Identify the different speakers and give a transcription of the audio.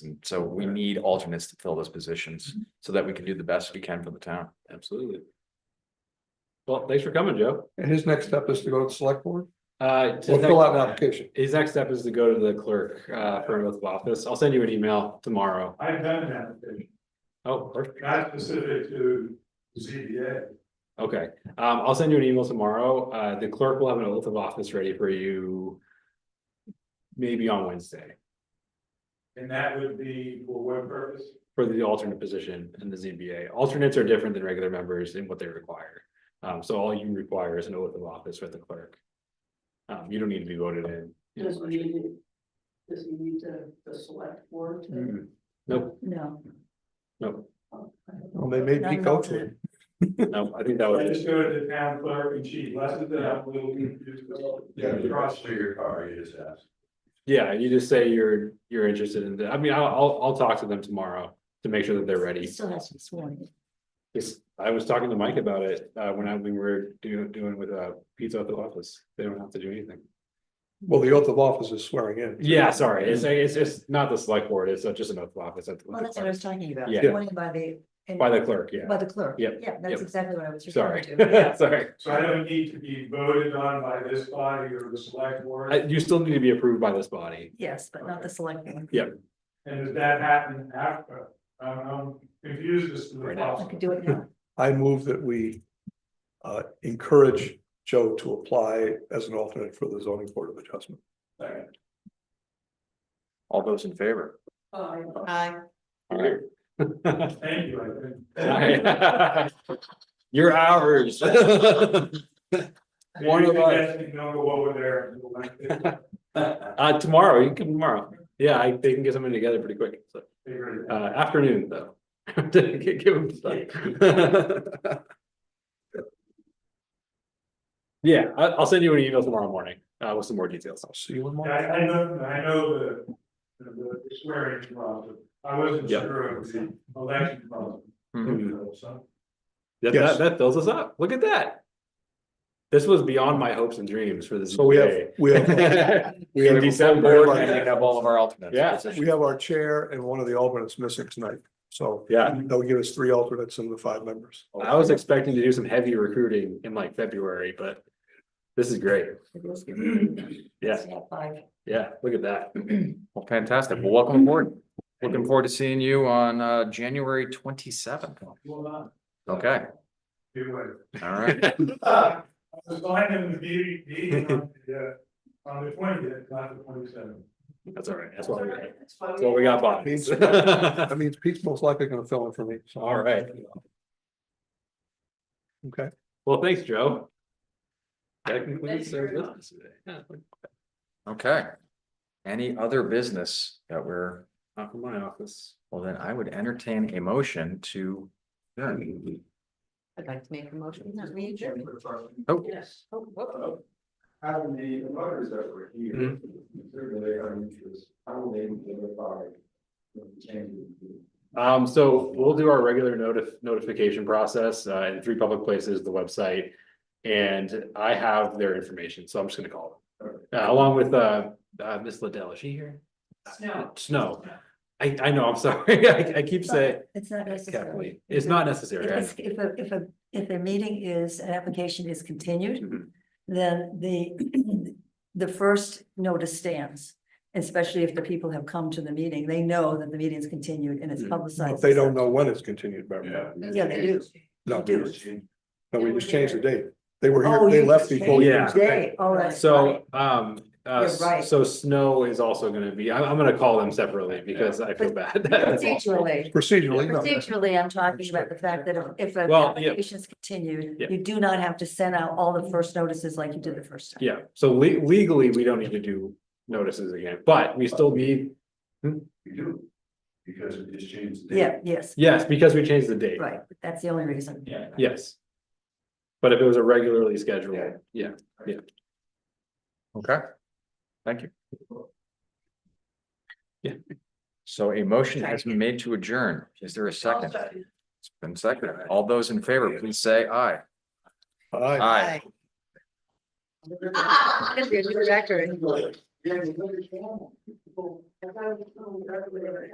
Speaker 1: And so we need alternates to fill those positions so that we can do the best we can for the town.
Speaker 2: Mm-hmm. Absolutely. Well, thanks for coming, Joe.
Speaker 3: And his next step is to go to the select board
Speaker 2: Uh,
Speaker 3: or fill out an application.
Speaker 2: his next step is to go to the clerk, uh, for an oath of office. I'll send you an email tomorrow.
Speaker 4: I've done an application,
Speaker 2: Oh, perfect.
Speaker 4: not specific to ZBA.
Speaker 2: Okay, um, I'll send you an email tomorrow. Uh, the clerk will have an oath of office ready for you. Maybe on Wednesday
Speaker 4: And that would be for what purpose?
Speaker 2: for the alternate position in the ZBA. Alternates are different than regular members in what they require. Um, so all you require is an oath of office with the clerk. Um, you don't need to be voted in.
Speaker 5: Does we need, does he need to, the select board to?
Speaker 2: Mm-mm. Nope,
Speaker 5: No.
Speaker 2: nope,
Speaker 3: Well, they made me go to it.
Speaker 2: no, I think
Speaker 6: Oh,
Speaker 2: that
Speaker 4: I
Speaker 2: was.
Speaker 4: just go to the town clerk and she blesses it, I'm a little confused.
Speaker 6: Yeah, the cross through your car, you just asked.
Speaker 2: Yeah, you just say you're, you're interested in, the- I mean, I'll, I'll, I'll talk to them tomorrow to make sure that they're ready.
Speaker 5: still has to be sworn.
Speaker 2: Yes, I was talking to Mike about it, uh, when I, we were doing, doing with, uh, pizza at the office, they don't have to do anything.
Speaker 3: Well, the oath of office is swearing in.
Speaker 2: Yeah, sorry, it's, it's, it's not the select board, it's just an oath of office. at the-
Speaker 5: Well, that's what I was talking about,
Speaker 2: Yeah.
Speaker 5: sworn by the. and-
Speaker 2: By the clerk, yeah,
Speaker 5: By the clerk.
Speaker 2: Yep,
Speaker 5: Yeah, that's
Speaker 2: yep.
Speaker 5: exactly what I was referring
Speaker 2: sorry,
Speaker 5: to. Yeah.
Speaker 2: sorry.
Speaker 4: So I don't need to be voted on by this body or the select board,
Speaker 2: I- You still need to be approved by this body.
Speaker 5: Yes, but not the select board.
Speaker 2: Yeah.
Speaker 4: and does that happen after? I'm, I'm confused as to the
Speaker 2: Right now.
Speaker 5: I
Speaker 4: process.
Speaker 5: could do it now.
Speaker 3: I move that we uh, encourage Joe to apply as an alternate for the zoning board of adjustment.
Speaker 1: All those in favor?
Speaker 5: Aye.
Speaker 2: All right.
Speaker 4: Thank you, I think.
Speaker 2: You're ours. Uh,
Speaker 4: Maybe
Speaker 2: One of
Speaker 4: the
Speaker 2: us.
Speaker 4: best thing, Know over there.
Speaker 2: Uh, tomorrow, you can come tomorrow. Yeah, I, they can get something together pretty quick, so,
Speaker 4: Figure it
Speaker 2: uh,
Speaker 4: out.
Speaker 2: afternoon though. Give them time. Yeah, I, I'll send you an email tomorrow morning, uh, with some more details.
Speaker 3: See you in
Speaker 4: I,
Speaker 3: March.
Speaker 4: I know, I know the, the- the swearing process, I wasn't
Speaker 2: Yeah.
Speaker 4: sure of the election process.
Speaker 1: Mhm.
Speaker 2: That,
Speaker 3: Yes.
Speaker 2: that, that fills us up. Look at that. This was beyond my hopes and dreams for this.
Speaker 3: So we have,
Speaker 2: day.
Speaker 3: we have, we
Speaker 2: In
Speaker 3: have,
Speaker 2: December.
Speaker 1: And we have all of our alternates.
Speaker 2: Yeah.
Speaker 3: we have our chair and one of the alternates missing tonight. So
Speaker 2: Yeah,
Speaker 3: that will give us three alternates and the five members.
Speaker 2: I was expecting to do some heavy recruiting in like February, but this is great.
Speaker 5: It was good.
Speaker 2: Yeah,
Speaker 5: Yeah, five.
Speaker 2: yeah, look at that.
Speaker 1: Well, fantastic. Well, welcome aboard. Looking forward to seeing you on uh January twenty seventh.
Speaker 4: Well, uh,
Speaker 1: Okay,
Speaker 4: you would.
Speaker 1: all right.
Speaker 4: Ah, I was lying in the meeting, meeting on the, uh, on the twentieth, not the twenty-seventh.
Speaker 2: That's all right. That's what we got. That's what we got,
Speaker 3: Means-
Speaker 2: Bob.
Speaker 3: That means Pete's most likely gonna fill in for me. So,
Speaker 2: All right.
Speaker 3: okay.
Speaker 2: Well, thanks, Joe. That concludes our business today. Yeah,
Speaker 1: Okay. Any other business that we're,
Speaker 2: Not from my office.
Speaker 1: well, then I would entertain a motion to.
Speaker 5: I'd like to make a motion, not me, Jim.
Speaker 1: Oh,
Speaker 5: Yes. Oh, whoop.
Speaker 6: Having Uh, the voters that were here, they're really our interest, how will they identify?
Speaker 2: Um, so we'll do our regular notif- notification process, uh, in three public places, the website. And I have their information, so I'm just gonna call them. Uh, along with, uh, uh, Miss Liddell, is she here?
Speaker 5: Snow.
Speaker 2: Snow. I, I know, I'm sorry. I, I keep saying
Speaker 5: It's not necessary.
Speaker 2: Kathleen. It's not necessary. I know.
Speaker 5: If, if, a- if, a- if a meeting is, an application is
Speaker 2: Mhm.
Speaker 5: continued, then the, the first notice stands. Especially if the people have come to the meeting, they know that the meeting is continued and it's
Speaker 2: Mhm.
Speaker 5: publicized.
Speaker 3: But they don't know when it's continued, remember?
Speaker 5: Yeah, they do.
Speaker 3: No,
Speaker 5: They do.
Speaker 3: we just- no, we just changed the date. They were
Speaker 5: Oh,
Speaker 3: here, they
Speaker 5: you
Speaker 3: left
Speaker 5: just
Speaker 3: before.
Speaker 5: Oh,
Speaker 3: we
Speaker 2: changed
Speaker 3: changed the date.
Speaker 5: Day, all right.
Speaker 2: So, um, uh,
Speaker 5: You're right.
Speaker 2: so Snow is also gonna be, I'm, I'm gonna call them separately because I feel bad.
Speaker 5: Procedurally,
Speaker 3: Procedurally, no.
Speaker 5: procedurally, I'm talking about the fact that if- if an
Speaker 2: Well, yeah.
Speaker 5: application is continued,
Speaker 2: Yeah.
Speaker 5: you do not have to send out all the first notices like you did the first time.
Speaker 2: Yeah, so le- legally, we don't need to do notices again, but we still need,
Speaker 6: We do, because we just changed. the date.
Speaker 5: Yeah, yes,
Speaker 2: yes, because we changed the date.
Speaker 5: right, that's the only reason.
Speaker 6: Yeah.
Speaker 2: Yes. But if it was a regularly scheduled,
Speaker 6: Yeah.
Speaker 2: yeah,
Speaker 1: okay. Thank you.
Speaker 2: Yeah.
Speaker 1: So a motion has been made to adjourn. Is there a second? It's been seconded. All those in favor, please say aye.
Speaker 3: Aye.
Speaker 1: Aye.
Speaker 5: You're a director.